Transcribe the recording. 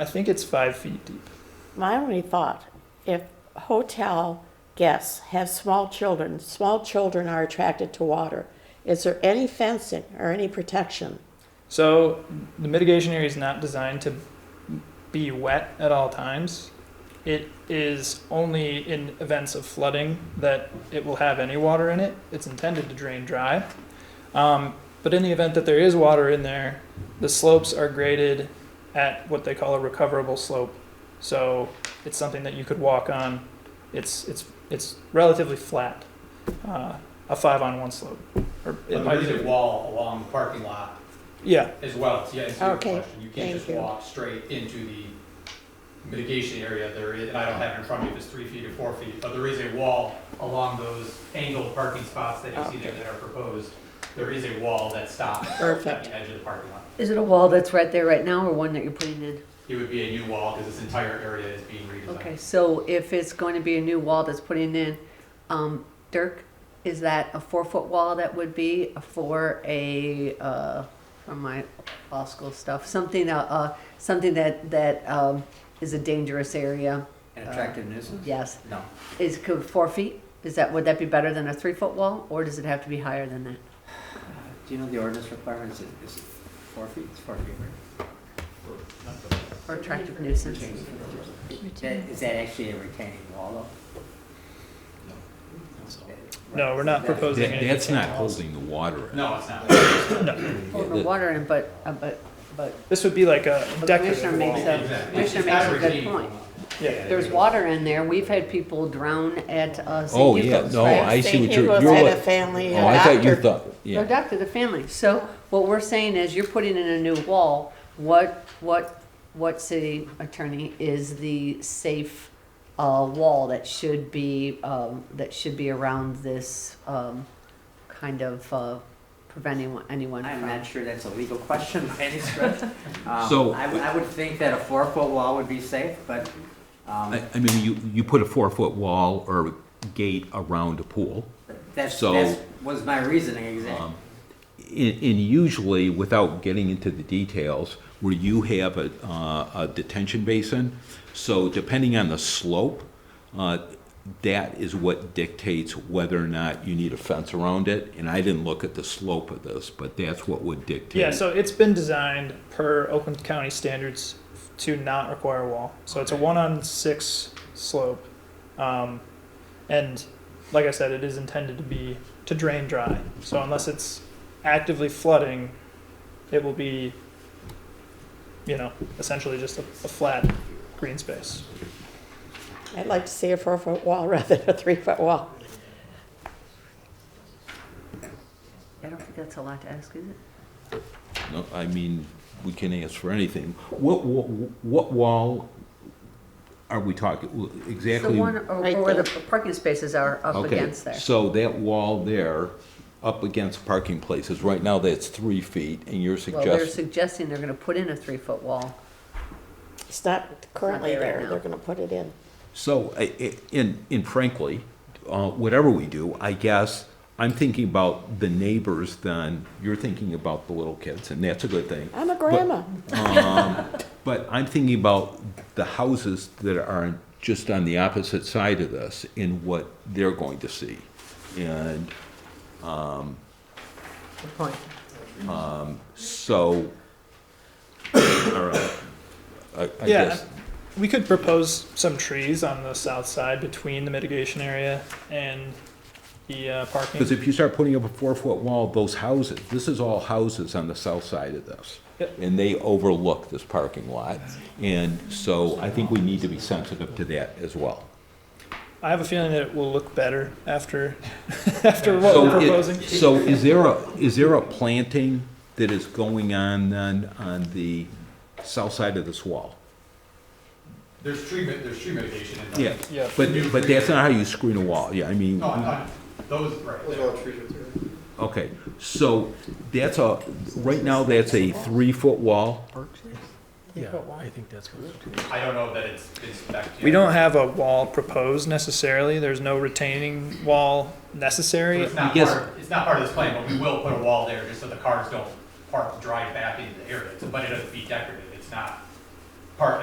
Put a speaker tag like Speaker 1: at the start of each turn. Speaker 1: I think it's five feet deep.
Speaker 2: My only thought, if hotel guests have small children, small children are attracted to water. Is there any fencing or any protection?
Speaker 1: So the mitigation area is not designed to be wet at all times. It is only in events of flooding that it will have any water in it. It's intended to drain dry. Um, but in the event that there is water in there, the slopes are graded at what they call a recoverable slope. So it's something that you could walk on. It's it's it's relatively flat, uh, a five on one slope, or it
Speaker 3: But
Speaker 1: might
Speaker 3: there is a
Speaker 1: even
Speaker 3: wall along the parking lot
Speaker 1: yeah.
Speaker 3: as well, to answer your
Speaker 2: Okay,
Speaker 3: question. You can't just
Speaker 2: thank you.
Speaker 3: walk straight into the mitigation area. There is, and I don't have it in front of me if it's three feet or four feet, but there is a wall along those angled parking spots that you see there that are proposed. There is a wall that stops at
Speaker 2: Perfect.
Speaker 3: the edge of the parking lot.
Speaker 4: Is it a wall that's right there right now or one that you're putting in?
Speaker 3: It would be a new wall because this entire area is being
Speaker 4: Okay,
Speaker 3: redesigned.
Speaker 4: so if it's going to be a new wall that's putting in, um, Dirk, is that a four foot wall that would be for a, uh, from my law school stuff, something, uh, uh, something that, that, um, is a dangerous area? Uh,
Speaker 5: An attractive nuisance?
Speaker 4: Yes.
Speaker 5: No.
Speaker 4: Is, could four feet, is that, would that be better than a three foot wall or does it have to be higher than that?
Speaker 5: Do you know the ordinance requirements? Is it- is it four feet? It's four feet, right?
Speaker 4: Or attractive nuisance?
Speaker 5: That- Is that actually a retaining wall Uh, though?
Speaker 1: No, we're not
Speaker 5: That's-
Speaker 1: proposing
Speaker 6: That,
Speaker 1: anything.
Speaker 6: that's not holding the water in.
Speaker 3: No, it's not.
Speaker 4: Over water and, but, uh, but, but
Speaker 1: This would be like a
Speaker 4: But
Speaker 1: decorative
Speaker 4: Commissioner
Speaker 1: wall.
Speaker 4: makes a-
Speaker 3: Exactly. It's
Speaker 4: Commissioner
Speaker 3: not
Speaker 4: makes a good
Speaker 3: retaining
Speaker 4: point.
Speaker 3: wall.
Speaker 1: Yeah.
Speaker 4: There's water in there. We've had people drown at uh, St.
Speaker 6: Oh, yeah,
Speaker 4: Hugo's,
Speaker 6: no,
Speaker 4: right?
Speaker 6: I see
Speaker 2: St.
Speaker 6: what you're,
Speaker 2: Hugo's
Speaker 6: you're
Speaker 2: had
Speaker 6: what-
Speaker 2: a family
Speaker 6: Oh, I thought you
Speaker 2: doctor.
Speaker 6: thought,
Speaker 4: They're
Speaker 6: yeah.
Speaker 4: adopted the family. So what we're saying is you're putting in a new wall. What, what, what city attorney is the safe uh, wall that should be, um, that should be around this um, kind of uh, preventing anyone
Speaker 5: I'm
Speaker 4: from?
Speaker 5: not sure that's a legal question by any stretch. Um,
Speaker 6: So-
Speaker 5: I would, I would think that a four foot wall would be safe, but, um,
Speaker 6: I, I mean, you, you put a four-foot wall or gate around a pool.
Speaker 5: that's,
Speaker 6: so-
Speaker 5: that was my reasoning exactly.
Speaker 6: Um, And, and usually, without getting into the details, where you have a, uh, a detention basin, so depending on the slope, uh, that is what dictates whether or not you need a fence around it. And I didn't look at the slope of this, but that's what would dictate.
Speaker 1: Yeah, so it's been designed per Oakland County standards to not require a wall. So it's a one on six slope. Um, and like I said, it is intended to be to drain dry. So unless it's actively flooding, it will be, you know, essentially just a, a flat green space.
Speaker 2: I'd like to see a four-foot wall rather than a three-foot wall.
Speaker 4: I don't think that's a lot to ask, is it?
Speaker 6: No, I mean, we can ask for anything. What, what, what wall are we talking,
Speaker 4: The
Speaker 6: exactly?
Speaker 4: one, or
Speaker 2: Right
Speaker 4: or where
Speaker 2: there.
Speaker 4: the parking spaces are up
Speaker 6: Okay,
Speaker 4: against there.
Speaker 6: So that wall there, up against parking places, right now that's three feet, and you're
Speaker 4: Well, they're
Speaker 6: suggesting,
Speaker 4: suggesting they're gonna put in a three-foot wall.
Speaker 2: It's not currently
Speaker 4: Not there right
Speaker 2: there,
Speaker 4: now.
Speaker 2: they're gonna put it in.
Speaker 6: so, I- I- in, in frankly, uh, whatever we do, I guess, I'm thinking about the neighbors then, you're thinking about the little kids, and that's a good thing.
Speaker 2: I'm a grandma.
Speaker 6: But I'm thinking about the houses that are just on the opposite side of this and what they're going to see. And um,
Speaker 4: Good point.
Speaker 6: so, all right, I, I
Speaker 1: Yeah.
Speaker 6: guess,
Speaker 1: We could propose some trees on the south side between the mitigation area and the uh, parking.
Speaker 6: because if you start putting up a four-foot wall, those houses, this is all houses on the south side of this.
Speaker 1: Yep.
Speaker 6: And they overlook this parking lot. And so I think we need to be sensitive to that as well.
Speaker 1: I have a feeling that it will look better after after what
Speaker 6: So
Speaker 1: we're
Speaker 6: it-
Speaker 1: proposing.
Speaker 6: So is there a, is there a planting that is going on then on the south side of this wall?
Speaker 3: There's tree, mi- there's tree mitigation in there.
Speaker 6: Yeah,
Speaker 1: Yeah.
Speaker 6: but, but that's not how you screen a wall, yeah, I mean,
Speaker 3: No, no, those, right. there.
Speaker 6: okay, so that's a, right now, that's a three-foot wall?
Speaker 7: Yeah, I think that's what it is.
Speaker 3: I don't know that it's, it's back to.
Speaker 1: We don't have a wall proposed necessarily. There's no retaining wall necessary.
Speaker 3: It's not
Speaker 6: I guess-
Speaker 3: part, it's not part of this plan, but we will put a wall there just so the cars don't park, drive back into the area, but it doesn't be decorative, it's not part,